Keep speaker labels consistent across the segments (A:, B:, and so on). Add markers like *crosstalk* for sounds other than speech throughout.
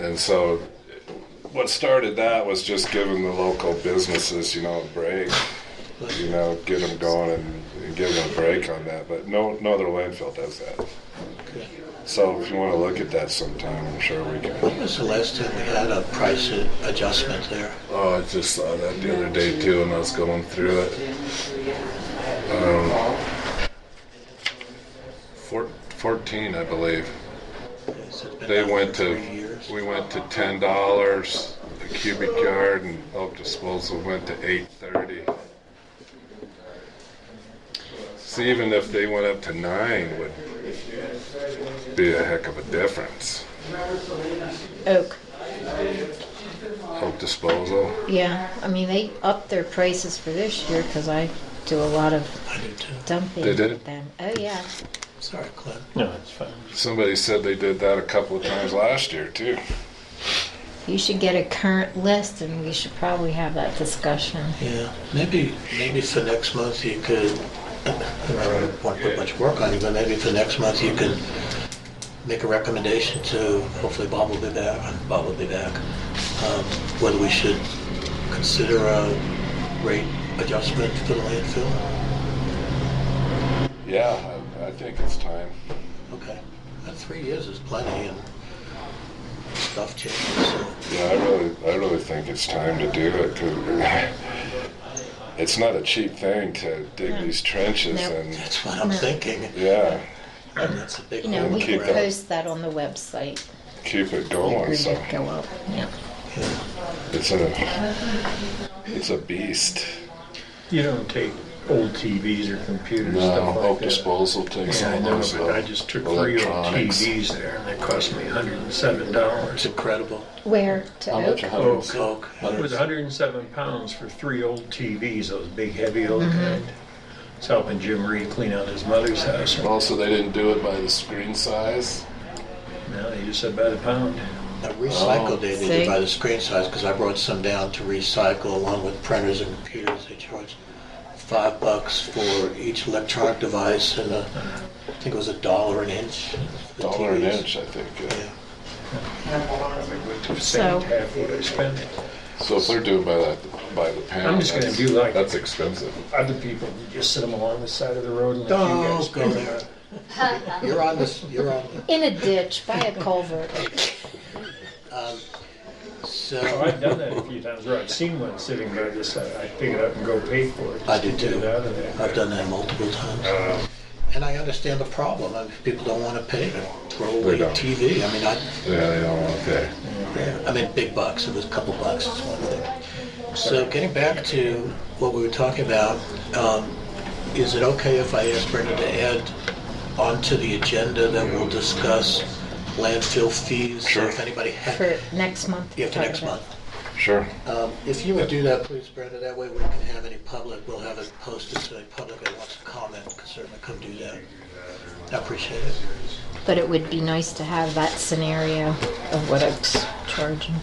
A: And so what started that was just giving the local businesses, you know, a break, you know, get them going and, and give them a break on that. But no, no other landfill does that.
B: Okay.
A: So if you want to look at that sometime, I'm sure we
B: When
A: can.
B: was the last time we had a price a- adjustment there?
A: Oh, I just saw that the other day too, and I was going through it. Um, four, 14, I believe.
B: Has it been
A: They
B: out
A: went
B: for
A: to,
B: three years?
A: we went to ten dollars a cubic yard and Elk Disposal went to eight thirty. See, even if they went up to nine would be a heck of a difference.
C: Oak.
A: Elk Disposal,
C: Yeah, I mean, they upped their prices for this year because I do a lot of
B: I do too.
C: dumping
A: They did?
C: with them. Oh, yeah.
B: Sorry, Clint.
D: No, it's fine.
A: somebody said they did that a couple of times last year too.
C: You should get a current list and we should probably have that discussion.
B: Yeah, maybe, maybe for next month you could, I don't want to put much work on you, but maybe for next month you could make a recommendation to, hopefully Bob will be back, Bob will be back, um, whether we should consider a rate adjustment for the landfill.
A: Yeah, I, I think it's time.
B: Okay, Uh, three years is plenty and stuff changes, so.
A: Yeah, I really, I really think it's time to do it 'cause *laughs* it's not a cheap thing to dig these trenches
C: No.
A: and,
B: That's what I'm
C: No.
B: thinking.
A: yeah.
B: And that's a big
C: You know,
B: one.
C: we
A: Keep
C: could
A: that. Oh,
C: post that on the website.
A: keep it
C: We
A: going.
C: agreed
A: So
C: it'd go up. Yeah.
B: Yeah.
A: it's a it's a beast.
D: You don't take old TVs or computers, stuff like
A: Hope
D: that.
A: disposal takes
D: Yeah, I
A: all
D: know,
A: those
D: but I just took three old
A: electronics.
D: TVs there and they cost me hundred and seven
B: It's
D: dollars.
B: incredible.
C: Where? To
A: How
C: Oak?
A: much a
D: Oh,
A: hundred?
B: Coke.
D: It was hundred and seven pounds for three old TVs, those big heavy old kind. It's helping Jim Reed clean out his mother's house.
A: Also, they didn't do it by the screen size.
D: Now they just said by the pound.
B: I recycle they
C: Oh, See?
B: did by the screen size because I brought some down to recycle along with printers and computers. They charge five bucks for each electronic device and a, I think it was a dollar an inch. for the
A: Dollar an
B: TVs.
A: inch, I think.
B: Yeah.
A: yeah.
C: So-
D: Same half what I spent.
A: So if they're doing by that by the pound,
D: I'm just gonna
A: that's-
D: do like-
A: that's expensive.
D: Other people just sit them along the side of the road and let you guys
B: Don't go
D: go there.
B: there. You're on this, you're on,
C: In a ditch by a culvert.
D: Oh,
B: so,
D: I've done that a few times where I've seen one sitting by this side. I pick it up and go pay for it. just
B: I do
D: to get
B: too.
D: it out of there.
B: I've done that multiple times.
D: Uh,
B: And I understand the problem. I mean, people don't want to pay to throw
A: They
B: away
A: don't.
B: TV. I mean, I,
A: Yeah, they don't want that.
B: Yeah, I mean, big bucks, it was a couple bucks, it's one thing. So getting back to what we were talking about, um, is it okay if I ask Brenda to add onto the agenda that we'll discuss landfill fees? So If
A: Sure.
B: anybody
C: For
B: has,
C: next month.
B: yeah, for
C: talk
B: next
C: about.
B: month.
A: Sure.
B: Um, If you would do that, please, Brenda, that way we can have any public, we'll have it posted so any public that wants to comment can certainly come do that. I appreciate it.
C: But it would be nice to have that scenario of what Oak's charging.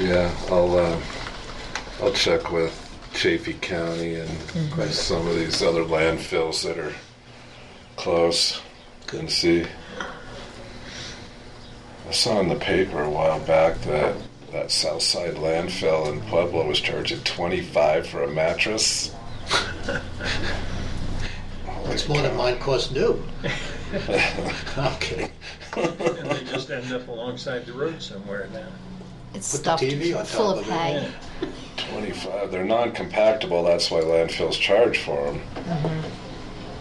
A: Yeah, I'll uh, I'll check with Chaffey County and some of these other landfills that are close and see. I saw in the paper a while back that that Southside landfill in Pueblo was charging twenty five for a mattress. *laughs*
B: It's more than mine costs new. *laughs* I'm kidding.
D: and they just end up alongside the road somewhere now.
C: It's
B: Put the
C: stuffed
B: TV on
C: full
B: top
C: of
B: of it,
C: hay.
D: Yeah.
A: Twenty five. They're non compactable. That's why landfills charge for them.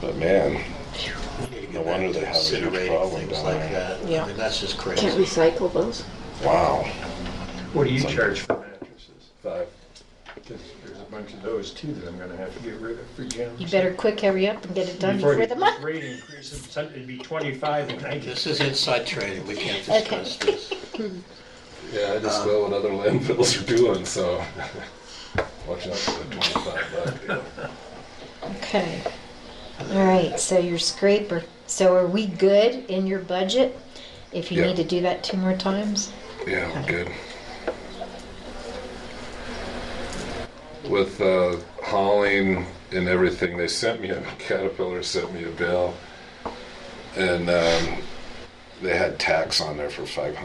A: But man, No
B: No
A: wonder they have a huge problem
B: Things
A: down
B: like
A: there.
B: that.
E: Yeah.
B: I mean, that's just
E: Can't
B: crazy.
E: recycle those?
A: wow.
D: What do you charge for mattresses? Five. Because there's a bunch of those too that I'm going to have to get rid of for Jim.
C: You better quick hurry up and get it done before
D: the
C: the month.
D: Rate increases, some- it'd be twenty-five and I just.
B: This is inside trading, we can't discuss this.
A: Yeah, I just know what other landfills are doing, so watch out for the twenty-five buck.
C: Okay. All right, so your scraper. So are we good in your budget? If you
A: Yeah.
C: need to do that two more times?
A: Yeah, I'm good. With uh, hauling and everything, they sent me *laughs* a Caterpillar sent me a bill, and um, they had tax on there for five hundred.